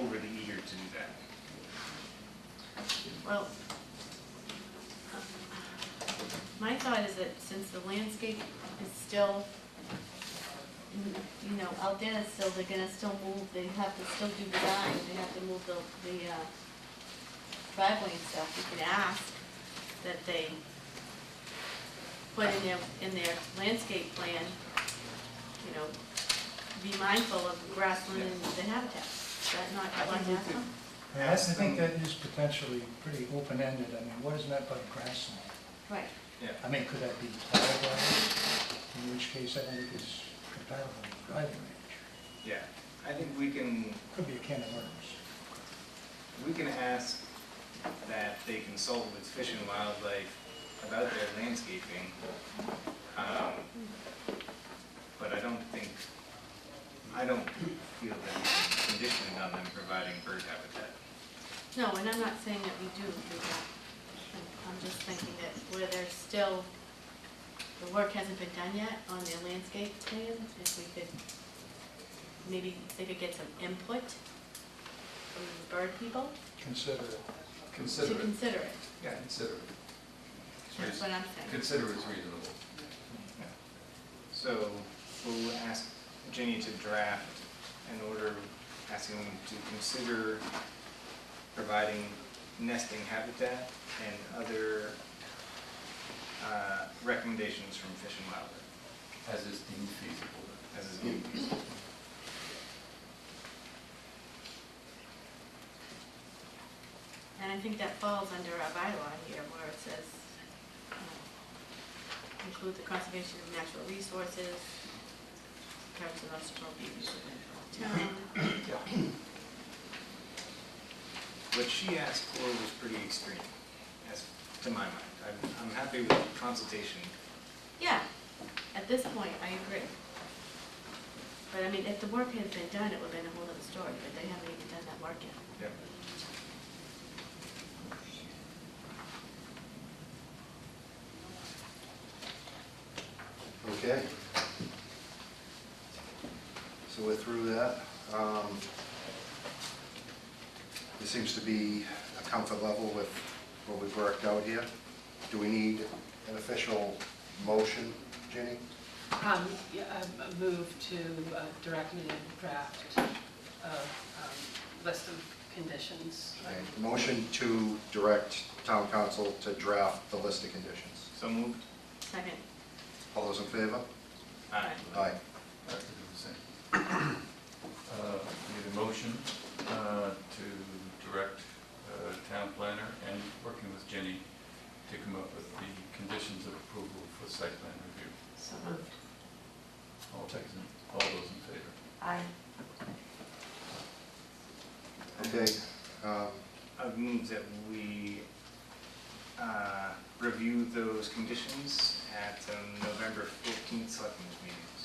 overly eager to do that. Well, my thought is that since the landscape is still, you know, out there, it's still, they're gonna still move, they have to still do design, they have to move the, the uh, driveway and stuff, we could ask that they put in their, in their landscape plan, you know, be mindful of grassland and the habitat. Is that not I what think we could- happened? I think that is potentially pretty open-ended. I mean, what is meant by grassland? Right. I mean, could that be plowed ground? In which case, I think it's compatible with driving range. Yeah, I think we can, Could be a can of worms. we can ask that they consult with Fish and Wildlife about their landscaping. Um, But I don't think, I don't feel that we can condition it on them providing bird habitat. No, and I'm not saying that we do do that. I'm- I'm just thinking that where there's still, the work hasn't been done yet on their landscape plan, if we could, maybe they could get some input from the bird people Consider it. to Consider it, consider it. yeah, consider it. That's what I'm saying. Consider it's reasonable. So we'll ask Jenny to draft an order asking them to consider providing nesting habitat and other uh, recommendations from Fish and Wildlife. As is deemed feasible. As is needed. And I think that falls under our bylaw here where it says, um, include the conservation of natural resources, covers the most appropriate use of the town. What she asked for was pretty extreme, as to my mind. I'm- I'm happy with consultation. Yeah, at this point, I agree. But I mean, if the work had been done, it would have been a whole other story, but they haven't even done that work yet. Yep. Okay. So we're through that. Um, There seems to be a comfort level with what we've worked out here. Do we need an official motion, Ginny? Um, yeah, I I move to uh, direct me a draft of, um, list of conditions. A Motion to direct town council to draft the list of conditions. So moved? Second, All those in favor? Aye. Aye. I have to do the same. Uh, Need a motion uh, to direct uh, town planner and working with Jenny to come up with the conditions of approval for site plan review. so moved. All those in, all those in favor? Aye. Okay. um, I move that we uh, review those conditions at um, November 14th selectmen's meetings.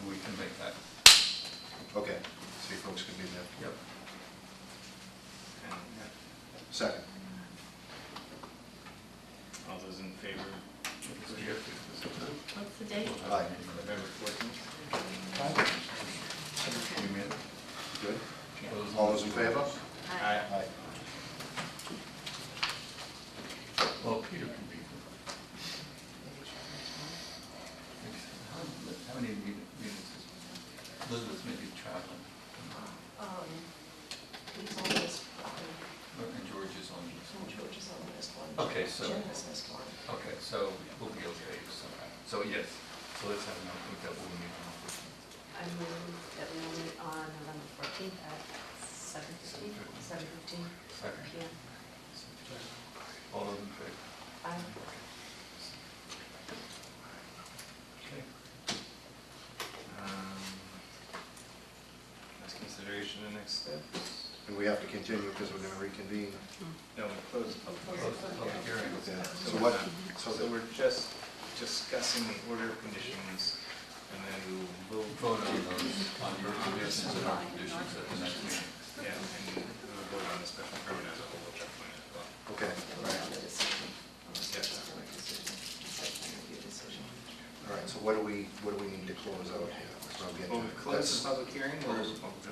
And we can make that. Okay, so you folks can be there. Yep. And yeah, Second. all those in favor? Because we have to- What's the date? we'll have a meeting in November November. 14th? Okay. You mean- Good. those- All those in favor? Aye. Aye. Well, Peter can be. there. How- How many meetings is, Elizabeth's maybe traveling, Um, he's on this, um, and George is on this. George is on this one. Okay, so- Jim has missed one. Okay, so we'll be okay somehow. So yes, so let's have, an- I think that will meet on the I move that we will meet on November fourteenth at seven fifteen, seven fifteen second. PM. All those in favor? I, Okay. Um, As consideration the next steps? And we have to continue because we're going to reconvene. No, we closed the public hearing. Close the public hearing. Okay, So So we're what, not- so So the- we're just discussing the order of conditions, and then we will vote, Vote on those, on your conditions and our conditions at the next meeting. yeah, and we'll vote on the special permit as a whole, check point as well. okay, we're on the decision. on the Yes. special decision, site plan review decision. all right, so what do we, what do we need to Oh, close out here? So I'm getting- Well, we've closed the public hearing, we'll